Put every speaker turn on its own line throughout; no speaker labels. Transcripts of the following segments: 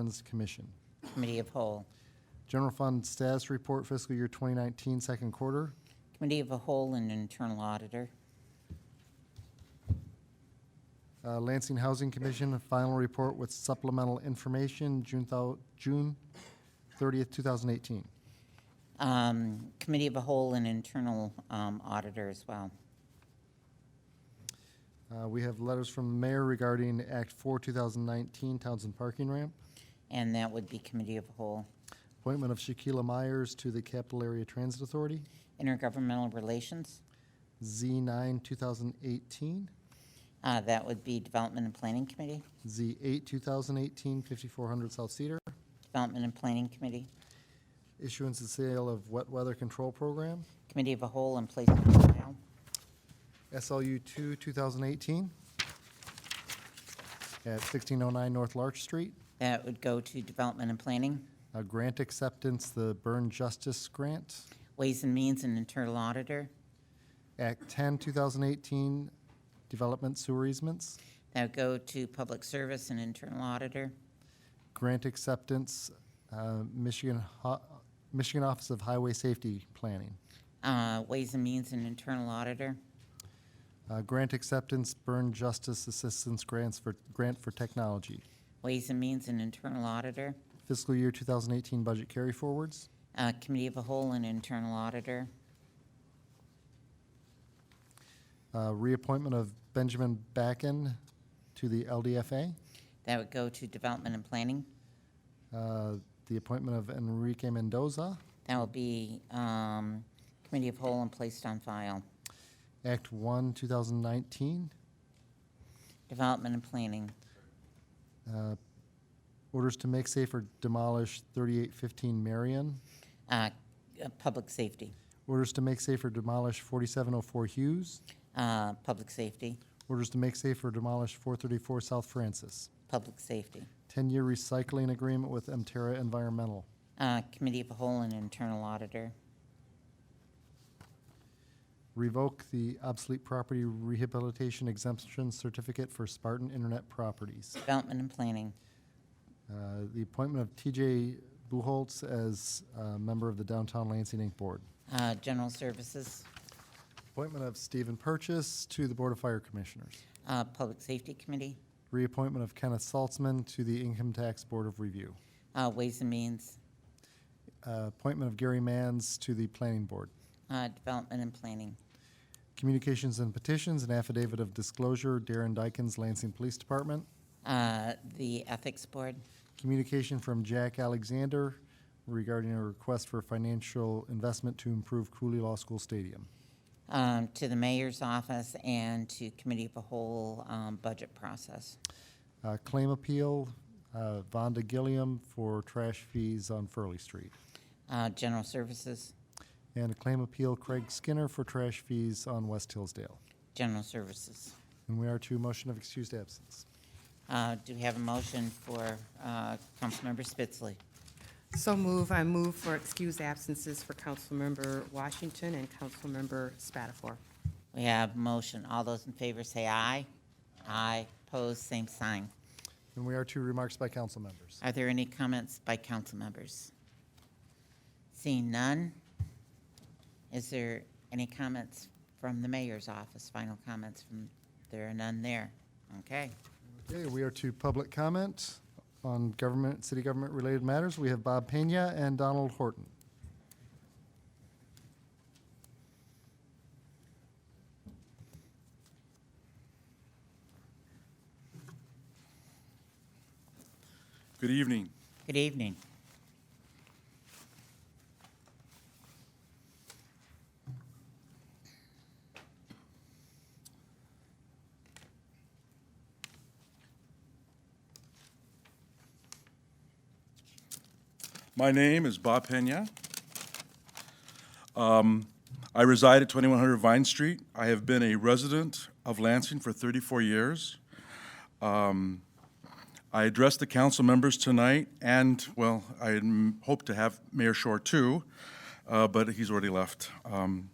Funds Commission.
Committee of Whole.
General Fund Status Report Fiscal Year 2019, Second Quarter.
Committee of a Whole and Internal Auditor.
Uh, Lansing Housing Commission, Final Report with Supplemental Information, June thou- June 30th, 2018.
Um, Committee of a Whole and Internal um, Auditor as well.
Uh, We have letters from the mayor regarding Act 4, 2019, Townsend Parking Ramp.
And that would be Committee of a Whole.
Appointment of Shaquila Myers to the Capital Area Transit Authority,
Intergovernmental Relations,
Z9, 2018,
uh, that would be Development and Planning Committee.
Z8, 2018, 5400 South Cedar.
Development and Planning Committee,
Issuance and sale of wet weather control program,
Committee of a Whole and Place on File.
SLU 2, 2018, at 1609 North Larch Street.
That would go to Development and Planning,
Uh, Grant acceptance, the Burn Justice Grant,
Ways and Means and Internal Auditor.
Act 10, 2018, development sewer easements.
That would go to Public Service and Internal Auditor.
grant acceptance, uh, Michigan, Ho- Michigan Office of Highway Safety Planning.
Uh, Ways and Means and Internal Auditor.
Uh, Grant acceptance, Burn Justice Assistance Grants for, Grant for Technology.
Ways and Means and Internal Auditor.
Fiscal year 2018 budget carry forwards.
Uh, Committee of a Whole and Internal Auditor.
Uh, Reappointment of Benjamin Backen to the LDFA.
That would go to Development and Planning.
Uh, The appointment of Enrique Mendoza.
That will be um, Committee of Whole and placed on file.
Act 1, 2019.
Development and Planning.
Uh, Orders to make safe or demolish 3815 Marion.
Uh, uh, Public Safety.
Orders to make safe or demolish 4704 Hughes.
Uh, Public Safety.
Orders to make safe or demolish 434 South Francis.
Public Safety.
10-year recycling agreement with Emterra Environmental.
Uh, Committee of the Whole and Internal Auditor.
Revoke the obsolete property rehabilitation exemption certificate for Spartan Internet Properties.
Development and Planning.
Uh, The appointment of TJ Buholtz as uh, member of the Downtown Lansing Inc. Board.
Uh, General Services.
Appointment of Stephen Purchase to the Board of Fire Commissioners.
Uh, Public Safety Committee.
Reappointment of Kenneth Saltzman to the Income Tax Board of Review.
Uh, Ways and Means.
Uh, Appointment of Gary Manns to the Planning Board.
Uh, Development and Planning.
Communications and petitions, an affidavit of disclosure, Darren Dykens, Lansing Police Department.
Uh, The Ethics Board.
Communication from Jack Alexander regarding a request for financial investment to improve Cooley Law School Stadium.
um, to the mayor's office and to committee of the whole um, budget process.
Uh, Claim appeal, uh, Vonda Gilliam for trash fees on Furley Street.
Uh, General services,
And a claim appeal, Craig Skinner for trash fees on West Hillsdale.
general services.
And we are to motion of excused absence.
Uh, Do we have a motion for uh, Councilmember Spitzley?
So move, I move for excused absences for Councilmember Washington and Councilmember Spatafor.
We have motion. All those in favor say aye. Aye. Opposed, same sign.
And we are to remarks by council members.
Are there any comments by council members? Seeing none, is there any comments from the mayor's office? Final comments from, there are none there. Okay.
Okay, we are to public comment on government, city government-related matters. We have Bob Pena and Donald Horton.
Good evening.
Good evening.
My name is Bob Pena. Um, I reside at 2100 Vine Street. I have been a resident of Lansing for 34 years. Um, I address the council members tonight, and, well, I m- hope to have Mayor Shore too, uh, but he's already left. Um,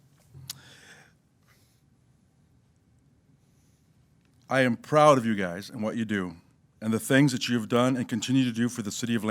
I am proud of you guys and what you do. and the things that you have done and continue to do for the city of